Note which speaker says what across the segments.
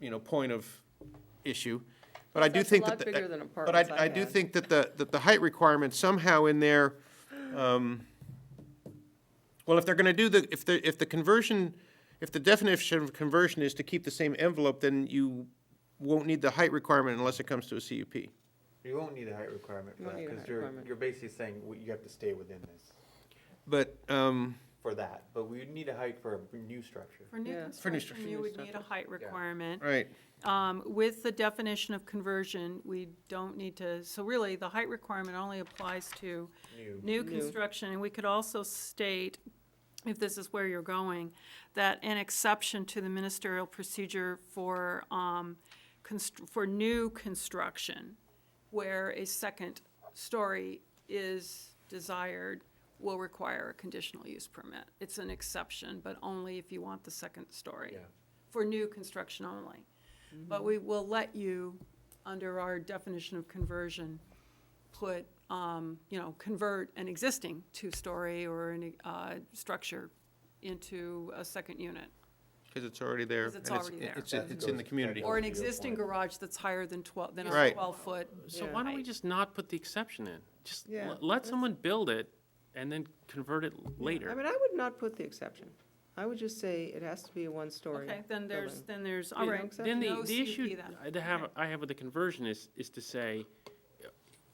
Speaker 1: you know, point of issue. But I do
Speaker 2: That's a
Speaker 1: think
Speaker 2: lot
Speaker 1: that. the- uh,
Speaker 2: bigger than apartments
Speaker 1: But
Speaker 2: I
Speaker 1: I, I do
Speaker 2: had.
Speaker 1: think that the, that the height requirement somehow in there, um, well, if they're gonna do the, if the, if the conversion, if the definition of conversion is to keep the same envelope, then you won't need the height requirement unless it comes to a CUP.
Speaker 3: You won't need a height requirement for
Speaker 2: You won't
Speaker 3: that,
Speaker 2: need a
Speaker 3: because
Speaker 2: height
Speaker 3: you're,
Speaker 2: requirement.
Speaker 3: you're basically saying w- you have to stay within this
Speaker 1: But, um,
Speaker 3: for that, but we would need a height for a new structure.
Speaker 4: For new
Speaker 2: Yeah.
Speaker 1: For new
Speaker 4: construction, you would need a height requirement.
Speaker 1: right,
Speaker 4: Um, With the definition of conversion, we don't need to, so really, the height requirement only applies to
Speaker 3: New,
Speaker 2: New.
Speaker 4: new construction. And we could also state, if this is where you're going, that an exception to the ministerial procedure for, um, constr- for new construction, where a second story is desired, will require a conditional use permit. It's an exception, but only if you want the second story.
Speaker 3: Yeah.
Speaker 4: For new construction only. But we will let you, under our definition of conversion, put, um, you know, convert an existing two-story or an, uh, structure into a second unit.
Speaker 1: cause it's already there.
Speaker 4: 'Cause it's
Speaker 1: and
Speaker 4: already there.
Speaker 1: It's, it's in the community.
Speaker 4: Or an
Speaker 3: That would be a
Speaker 4: existing
Speaker 3: point.
Speaker 4: garage that's higher than twelve, than a
Speaker 1: Right.
Speaker 4: twelve-foot.
Speaker 5: So why don't we
Speaker 4: height.
Speaker 5: just not put the exception in? Just
Speaker 2: Yeah,
Speaker 5: l- let
Speaker 2: that's-
Speaker 5: someone build it and then convert it
Speaker 2: I
Speaker 5: later.
Speaker 2: mean, I would not put the exception. I would just say it has to be a one-story
Speaker 4: Okay, then there's,
Speaker 2: building.
Speaker 4: then there's, all
Speaker 2: All
Speaker 4: right.
Speaker 2: right.
Speaker 5: Then
Speaker 4: No
Speaker 5: the, the
Speaker 4: CUP
Speaker 5: issue
Speaker 4: then.
Speaker 5: I- to have, I have with the conversion is, is to say,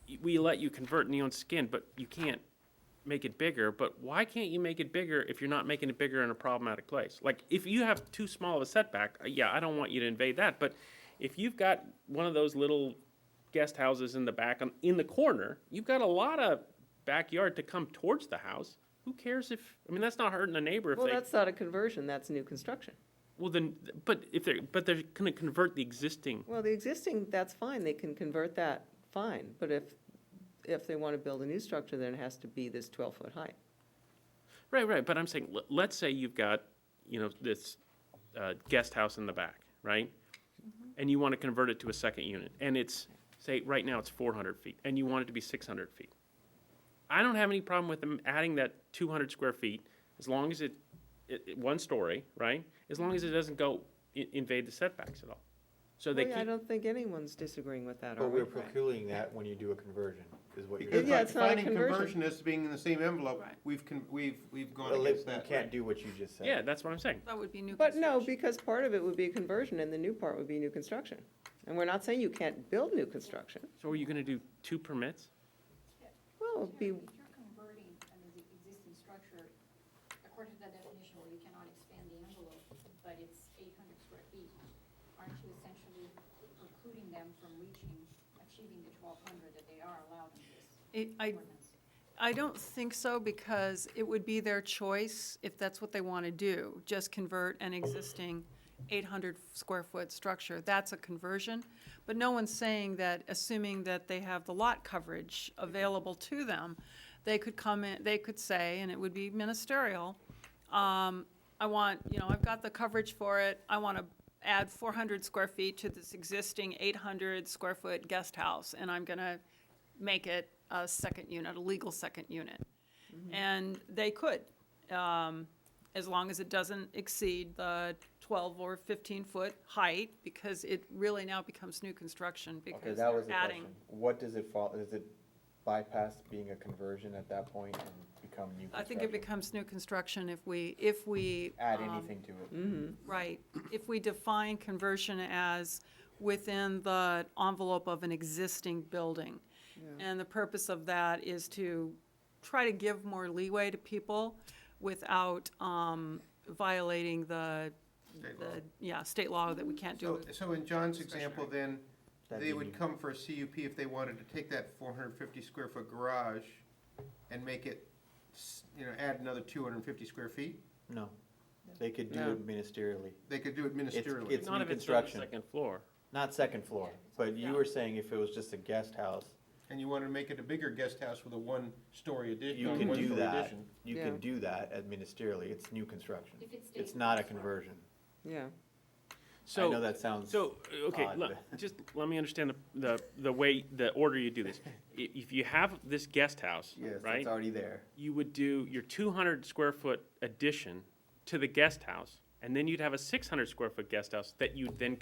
Speaker 5: y- we let you convert neon skin, but you can't make it bigger, but why can't you make it bigger if you're not making it bigger in a problematic place? Like, if you have too small of a setback, uh, yeah, I don't want you to invade that, but if you've got one of those little guest houses in the back, um, in the corner, you've got a lot of backyard to come towards the house. Who cares if, I mean, that's not hurting the neighbor if
Speaker 2: Well,
Speaker 5: they,
Speaker 2: that's not a conversion, that's new construction.
Speaker 5: well, then, but if they're, but they're gonna convert the existing,
Speaker 2: Well, the existing, that's fine, they can convert that, fine, but if, if they want to build a new structure, then it has to be this twelve-foot height.
Speaker 5: right, right, but I'm saying, let- let's say you've got, you know, this, uh, guest house in the back, right?
Speaker 2: Mm-hmm.
Speaker 5: And you wanna convert it to a second unit, and it's, say, right now it's four hundred feet, and you want it to be six hundred feet. I don't have any problem with them adding that two hundred square feet, as long as it, it, it- one story, right? As long as it doesn't go i- invade the setbacks at all. So they
Speaker 2: Well, yeah, I
Speaker 5: keep,
Speaker 2: don't think anyone's disagreeing with that, are
Speaker 3: but
Speaker 2: we?
Speaker 3: we're precluding that when you do a conversion, is what you're.
Speaker 1: Because
Speaker 2: Yeah,
Speaker 1: by
Speaker 2: it's not a
Speaker 1: defining
Speaker 2: conversion.
Speaker 1: conversion as being in the same envelope,
Speaker 4: Right.
Speaker 1: we've, con- we've, we've gone
Speaker 3: Well,
Speaker 1: against
Speaker 3: You
Speaker 1: that.
Speaker 3: can't do what you just said.
Speaker 5: yeah, that's what I'm saying.
Speaker 4: That would be new
Speaker 2: But no,
Speaker 4: construction.
Speaker 2: because part of it would be a conversion, and the new part would be new construction. And we're not saying you can't build new construction,
Speaker 5: So are you gonna do two permits?
Speaker 2: well, it'd be,
Speaker 6: If you're converting an ex- existing structure, according to that definition, where you cannot expand the envelope, but it's eight hundred square feet, aren't you essentially precluding them from reaching, achieving the twelve hundred that they are allowed in this
Speaker 4: It- I,
Speaker 6: ordinance?
Speaker 4: I don't think so, because it would be their choice, if that's what they want to do, just convert an existing 800-square-foot structure. That's a conversion. But no one's saying that, assuming that they have the lot coverage available to them, they could come in, they could say, and it would be ministerial, um, I want, you know, I've got the coverage for it, I want to add 400 square feet to this existing 800-square-foot guest house, and I'm going to make it a second unit, a legal second unit. And they could, um, as long as it doesn't exceed the 12 or 15-foot height, because it really now becomes new construction,
Speaker 3: Okay,
Speaker 4: because
Speaker 3: that was
Speaker 4: they're
Speaker 3: the
Speaker 4: adding.
Speaker 3: question. What does it fall, does it bypass being a conversion at that point and become new
Speaker 4: I think it
Speaker 3: construction?
Speaker 4: becomes new construction if we, if we.
Speaker 3: Add
Speaker 4: um,
Speaker 3: anything to it.
Speaker 2: mm-hmm.
Speaker 4: Right. If we define conversion as within the envelope of an existing building. And the purpose of that is to try to give more leeway to people without um, violating the,
Speaker 1: State
Speaker 4: the-
Speaker 1: law.
Speaker 4: yeah, state law that we can't do.
Speaker 1: So,
Speaker 4: it.
Speaker 1: Oh, so in John's example, then,
Speaker 3: That'd
Speaker 1: they
Speaker 3: be
Speaker 1: would
Speaker 3: neat.
Speaker 1: come for a CUP if they wanted to take that four hundred and fifty square foot garage and make it, s- you know, add another two hundred and fifty square feet?
Speaker 3: No, they could do
Speaker 2: No.
Speaker 3: it ministerially,
Speaker 1: They could do it ministerially.
Speaker 3: It's new
Speaker 5: Not if it's on the
Speaker 3: construction.
Speaker 5: second floor.
Speaker 3: not second floor, but you were saying if it was just a guest house,
Speaker 1: And you wanted to make it a bigger guest house with a one-story addition,
Speaker 3: you can do
Speaker 1: one-story
Speaker 3: that.
Speaker 1: addition.
Speaker 3: You
Speaker 2: Yeah.
Speaker 3: can do that administratively, it's new construction.
Speaker 6: If it stays
Speaker 3: It's not a
Speaker 6: construction.
Speaker 3: conversion.
Speaker 2: yeah.
Speaker 5: So.
Speaker 3: I know that sounds.
Speaker 5: So, uh, okay,
Speaker 3: odd,
Speaker 5: le- just let me understand the, the, the way, the order you do this. I- If you have this guest house,
Speaker 3: Yes,
Speaker 5: right?
Speaker 3: it's already there.
Speaker 5: You would do your two hundred square foot addition to the guest house, and then you'd have a six hundred square foot guest house that you'd then